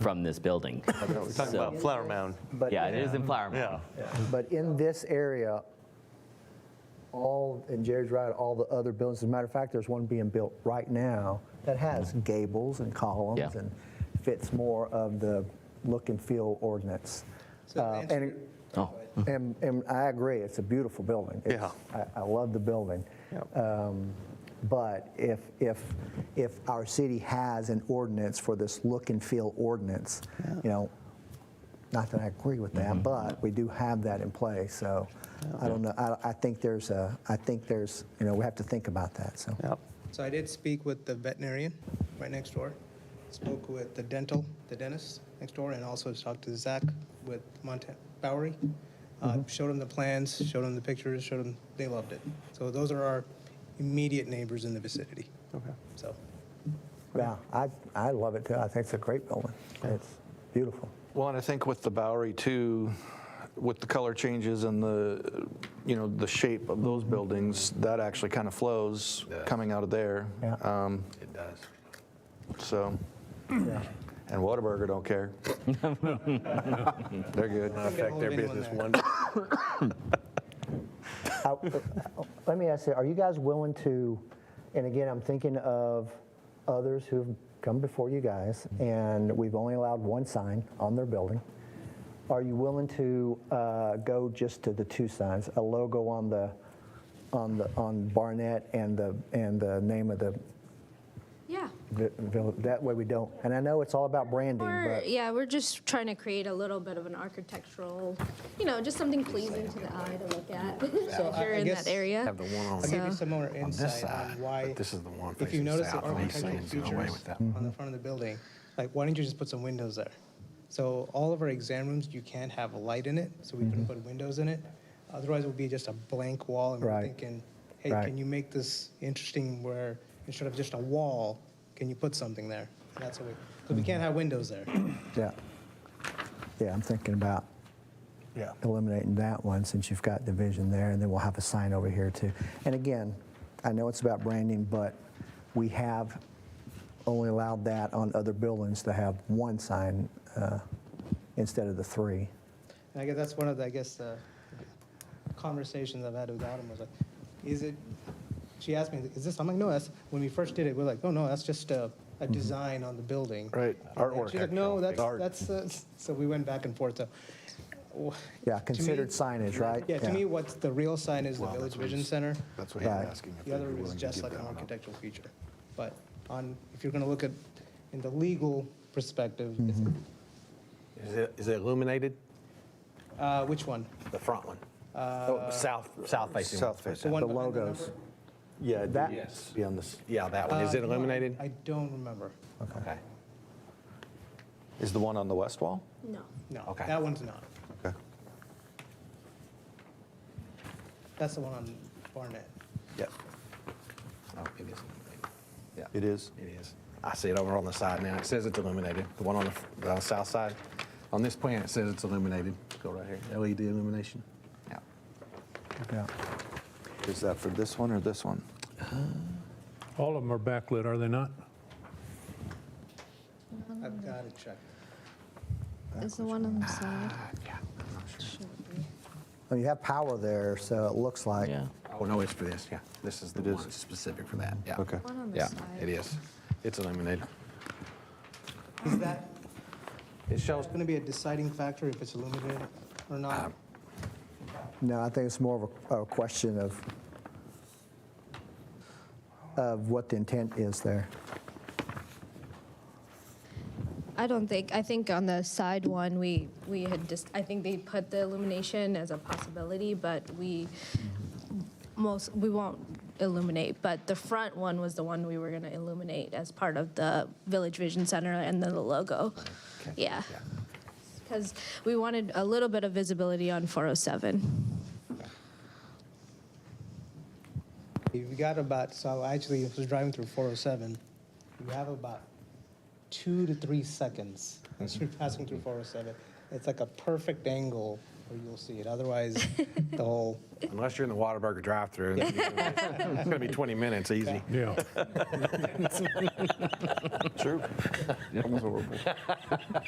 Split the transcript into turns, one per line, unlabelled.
from this building.
We're talking about Flower Mound.
But
Yeah, it is in Flower
Yeah.
Mound.
But in this area, all, and Jerry's right, all the other buildings, as a matter of fact, there's one being built right now that has gables and columns
Mm-hmm. Yeah.
and fits more of the look and feel ordinance. Uh, And, it-
Oh.
and, and I agree, it's a beautiful building. It's- I, I love the building.
Yep.
Um, But if, if, if our city has an ordinance for this look and feel ordinance, you know, not that I agree with that, but we do have that in place, so I don't know, I, I think there's a, I think there's, you know, we have to think about that, so.
Yep.
So I did speak with the veterinarian right next door, spoke with the dental, the dentist next door, and also talked to Zach with Montana Bowery. Uh, Showed him the plans, showed him the pictures, showed him, they loved it. So those are our immediate neighbors in the vicinity.
Okay.
So,
Yeah, I, I love it too, I think it's a great building, it's beautiful.
Well, and I think with the Bowery too, with the color changes and the, you know, the shape of those buildings, that actually kind of flows coming out of there.
Yeah.
Um,
It does.
So, and Whataburger don't care. They're good.
Affect their
Hold anyone
business
there.
one.
I- Let me ask you, are you guys willing to, and again, I'm thinking of others who've come before you guys, and we've only allowed one sign on their building. Are you willing to uh, go just to the two signs, a logo on the, on the, on Barnett and the, and the name of the
Yeah.
vi- village? That way we don't, and I know it's all about branding,
Or,
but,
yeah, we're just trying to create a little bit of an architectural, you know, just something pleasing to the eye to look at.
So
if
I-
you're
I
in
guess-
that area.
Have the one on-
I'll give you
So-
some more
On this
insight
side,
on why.
but this is the one
If you
facing
notice the
south, only
architectural
Satan's got away
features
with that one.
on the front of the building, like, why don't you just put some windows there? So all of our exam rooms, you can't have a light in it, so we
Mm-hmm.
couldn't put windows in it. Otherwise, it would be just a blank wall, and we're
Right.
thinking, hey,
Right.
can you make this interesting where instead of just a wall, can you put something there? And That's what we, because we can't have windows there.
yeah. Yeah, I'm thinking about
Yeah.
eliminating that one since you've got division there, and then we'll have a sign over here too. And again, I know it's about branding, but we have only allowed that on other buildings to have one sign uh, instead of the three.
And I guess that's one of the, I guess, the conversations I've had with Autumn was like, is it, she asked me, is this, I'm like, no, that's, when we first did it, we're like, oh, no, that's just a, a
Mm-hmm.
design on the building.
Right,
And
artwork.
She's like, no, that's,
Art.
that's, uh," so we went back and forth, so. w-
Yeah,
to me-
considered signage, right?
Yeah, to me, what's the real sign is the Village Vision Center.
That's what he's
Right.
asking. if
The other
they'd be
is
willing to
just
give
like
that
an
one up.
architectural feature. But on, if you're gonna look at, in the legal perspective, it's-
Is it, is it illuminated?
uh, which one?
The front one? Oh, South, south facing. one.
South facing.
The one
The
behind the
logos.
number?
Yeah,
That-
yes. Be on this.
Yeah, that one. Is
Uh,
it
you know, I-
illuminated?
I don't remember.
Okay.
Is the one on the west wall?
No.
No,
Okay.
that one's not.
Okay.
That's the one on Barnett.
Yep. Oh, it is illuminated. Yeah.
It is?
It is. I see it over on the side now. It says it's illuminated. The one on the, f- the south side. On this plan, it says it's illuminated. Go right here. LED illumination. Yeah.
Yeah.
Is that for this one or this one?
All of them are backlit, are they not?
I've got to check.
Is the one on the side.
Yeah. I'm not sure.
Well, you have power there, so it looks like.
Yeah.
Oh, no, it's for this, yeah. This is the
It is.
one specific for that, yeah.
Okay.
One on the
Yeah,
side.
it is. It's illuminated.
Is that
It shows,
going to be a deciding factor if it's illuminated or not?
Um,
No, I think it's more of a, a question of, of what the intent is there.
I don't think, I think on the side one, we, we had just, I think they put the illumination as a possibility, but we most, we won't illuminate, but the front one was the one we were gonna illuminate as part of the Village Vision Center and then the logo. Yeah. Because we wanted a little bit of visibility on 407.
You've got about, so I actually was driving through 407. You have about
Mm-hmm.
oh two to three seconds as you're passing through 407. It's like a perfect angle or you'll see it. Otherwise, the whole,
Unless you're in the Whataburger drive-through. then you're gonna- It's going to be 20 minutes, easy.
Yeah.
True.